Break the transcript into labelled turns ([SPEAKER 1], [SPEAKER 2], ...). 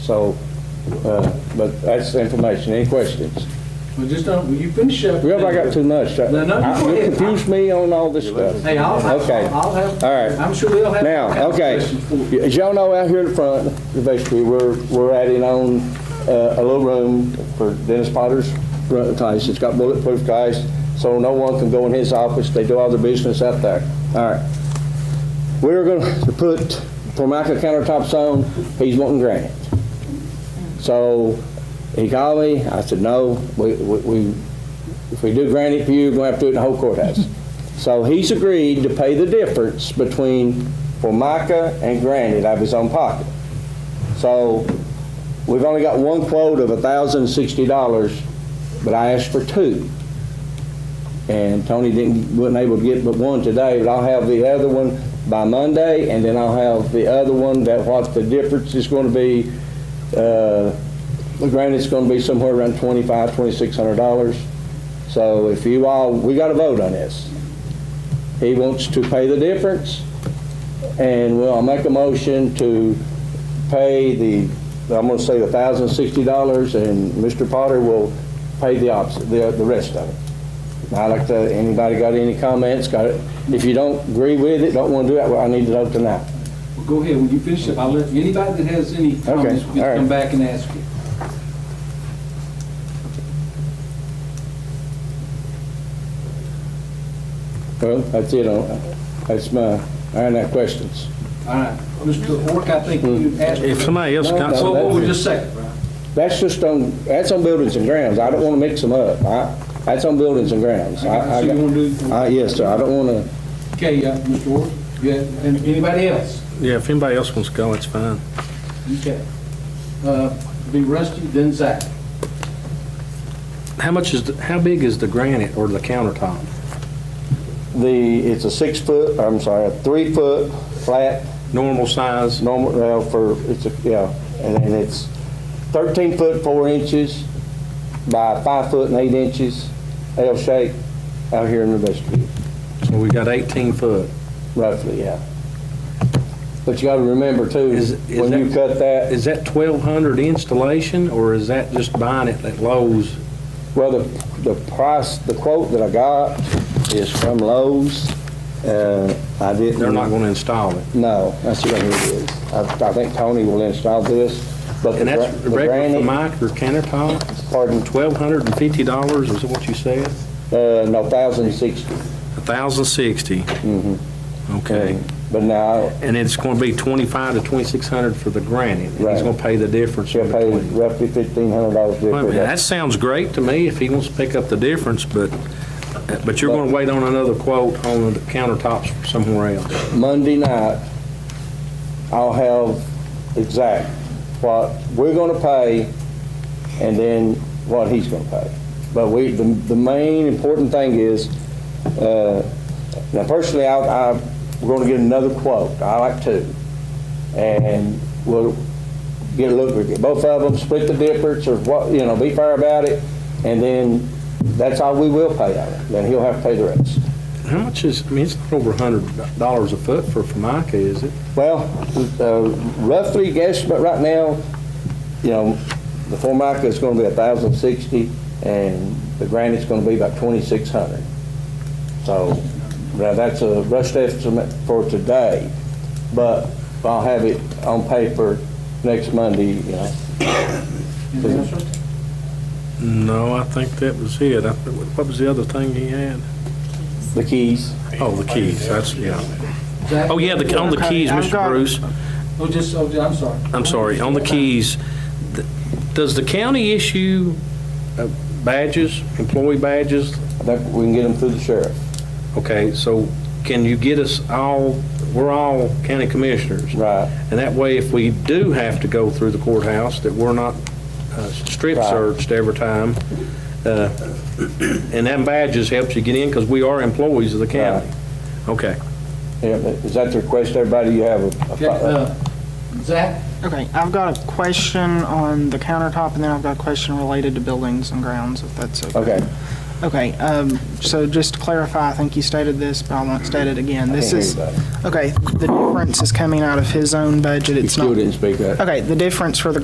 [SPEAKER 1] So, uh, but that's the information. Any questions?
[SPEAKER 2] Well, just don't, will you finish up?
[SPEAKER 1] Well, I got too much.
[SPEAKER 2] No, no, you go
[SPEAKER 1] You
[SPEAKER 2] ahead.
[SPEAKER 1] confused me on all this stuff.
[SPEAKER 2] Hey, I'll, I'll
[SPEAKER 1] Okay.
[SPEAKER 2] I'll have.
[SPEAKER 1] All right.
[SPEAKER 2] I'm sure they'll have.
[SPEAKER 1] Now, okay,
[SPEAKER 2] questions for you.
[SPEAKER 1] as y'all know, out here in front, basically, we're, we're adding on uh, a little room for Dennis Potter's run- place. It's got bulletproof glass, so no one can go in his office. They do all their business out there. All right. We're going to put Formica countertops on. He's wanting granite. So he called me. I said, no, we, we, we- if we do granite for you, we're going to have to do it in the whole courthouse. So he's agreed to pay the difference between Formica and granite out of his own pocket. So we've only got one quote of $1,060, but I asked for two. And Tony didn't, wasn't able to get but one today, but I'll have the other one by Monday, and then I'll have the other one that what the difference is going to be. Uh, Granted, it's going to be somewhere around $2,500, $2,600. So if you all, we got to vote on this. He wants to pay the difference, and we'll I'll make a motion to pay the, I'm going to say the $1,060, and Mr. Potter will pay the opposite, the the rest of it. And I'd like to, anybody got any comments? Got it? If you don't agree with it, don't want to do it, well, I need to know tonight.
[SPEAKER 2] Well, Go ahead, when you finish up, I'll let, anybody that has any comments, we
[SPEAKER 1] all right.
[SPEAKER 2] can come back and ask you.
[SPEAKER 1] Well, that's it, on- that's my, I don't have questions.
[SPEAKER 2] All right, Mr. Work, I think you asked.
[SPEAKER 3] Mm. If somebody else
[SPEAKER 1] No,
[SPEAKER 3] got
[SPEAKER 1] no,
[SPEAKER 2] Well,
[SPEAKER 3] some,
[SPEAKER 2] what was just second, Brian?
[SPEAKER 1] That's just on, that's on buildings and grounds, I don't want to mix them up. I- That's on buildings and grounds. I- I
[SPEAKER 2] So you
[SPEAKER 1] got-
[SPEAKER 2] want to do,
[SPEAKER 1] Uh, yes, sir, I don't want to,
[SPEAKER 2] okay, uh, Mr. Work, yeah, and anybody else?
[SPEAKER 3] yeah, if anybody else wants to go, it's fine.
[SPEAKER 2] Okay. Uh, Be Rusty, then Zach.
[SPEAKER 3] How much is, the- how big is the granite or the countertop?
[SPEAKER 1] the, it's a six-foot, I'm sorry, a three-foot flat,
[SPEAKER 3] Normal size?
[SPEAKER 1] normal, well, for, it's a, yeah, and and it's 13 foot 4 inches by 5 foot and 8 inches, L shape, out here in the vestibule,
[SPEAKER 3] So we got 18 foot.
[SPEAKER 1] roughly, yeah. But you got to remember too,
[SPEAKER 3] Is- is
[SPEAKER 1] when you
[SPEAKER 3] that-
[SPEAKER 1] cut that,
[SPEAKER 3] Is that 1,200 installation, or is that just buying it at Lowe's?
[SPEAKER 1] Well, the, the price, the quote that I got is from Lowe's. Uh, I didn't.
[SPEAKER 3] They're not going to install it.
[SPEAKER 1] No, that's what it is. I, I think Tony will install this, but the
[SPEAKER 3] And
[SPEAKER 1] gra-
[SPEAKER 3] that's
[SPEAKER 1] the
[SPEAKER 3] regular for
[SPEAKER 1] granite,
[SPEAKER 3] Mike or countertop?
[SPEAKER 1] pardon,
[SPEAKER 3] $1,250 is what you said?
[SPEAKER 1] uh, no, thousand sixty.
[SPEAKER 3] 1,060.
[SPEAKER 1] Mm-hmm.
[SPEAKER 3] Okay.
[SPEAKER 1] But now,
[SPEAKER 3] And it's going to be 25 to 2,600 for the granite. and
[SPEAKER 1] Right.
[SPEAKER 3] He's going to pay the difference
[SPEAKER 1] she'll
[SPEAKER 3] in
[SPEAKER 1] pay
[SPEAKER 3] between.
[SPEAKER 1] roughly fifteen hundred dollars
[SPEAKER 3] Well,
[SPEAKER 1] difference.
[SPEAKER 3] That sounds great to me if he wants to pick up the difference, but, but you're going to wait on another quote on the countertops somewhere else.
[SPEAKER 1] Monday night, I'll have exact what we're gonna pay and then what he's gonna pay. But we, the, the main important thing is, uh, now personally, I, I, we're gonna get another quote. I like two. And we'll get a look at both of them, split the difference or what, you know, be fair about it. And then that's all we will pay out of it. Then he'll have to pay the rest.
[SPEAKER 3] How much is, I mean, it's not over $100 a foot for Formica, is it?
[SPEAKER 1] Well, uh, roughly guess, but right now, you know, the Formica is going to be 1,060, and the granite's going to be about 2,600. So, now that's a rushed estimate for today, but I'll have it on paper next Monday, you know.
[SPEAKER 2] Anything else, Rusty?
[SPEAKER 3] No, I think that was it. I- What was the other thing he had?
[SPEAKER 1] the keys.
[SPEAKER 3] Oh, the keys, that's, yeah.
[SPEAKER 2] Zach?
[SPEAKER 3] Oh, yeah, the- on the keys, Mr. Bruce,
[SPEAKER 2] Oh, just, oh, I'm sorry.
[SPEAKER 3] I'm sorry, on the keys, th- does the county issue uh, badges, employee badges
[SPEAKER 1] I think we can get them through the sheriff.
[SPEAKER 3] Okay, so can you get us all, we're all county commissioners.
[SPEAKER 1] Right.
[SPEAKER 3] And that way, if we do have to go through the courthouse, that we're not uh, strip
[SPEAKER 1] Right.
[SPEAKER 3] searched every time. Uh, And them badges helps you get in, because we are employees of the county. Okay.
[SPEAKER 1] Yeah, but Is that the request, everybody, you have a-
[SPEAKER 2] Okay,
[SPEAKER 1] a,
[SPEAKER 2] uh, Zach,
[SPEAKER 4] Okay, I've got a question on the countertop, and then I've got a question related to buildings and grounds, if that's okay.
[SPEAKER 1] okay,
[SPEAKER 4] Okay, um, so just to clarify, I think you stated this, but I won't state it again.
[SPEAKER 1] I
[SPEAKER 4] This
[SPEAKER 1] can't hear
[SPEAKER 4] is,
[SPEAKER 1] you, buddy.
[SPEAKER 4] okay, the difference is coming out of his own budget,
[SPEAKER 1] You
[SPEAKER 4] it's
[SPEAKER 1] still
[SPEAKER 4] not.
[SPEAKER 1] didn't speak up.
[SPEAKER 4] Okay, the difference for the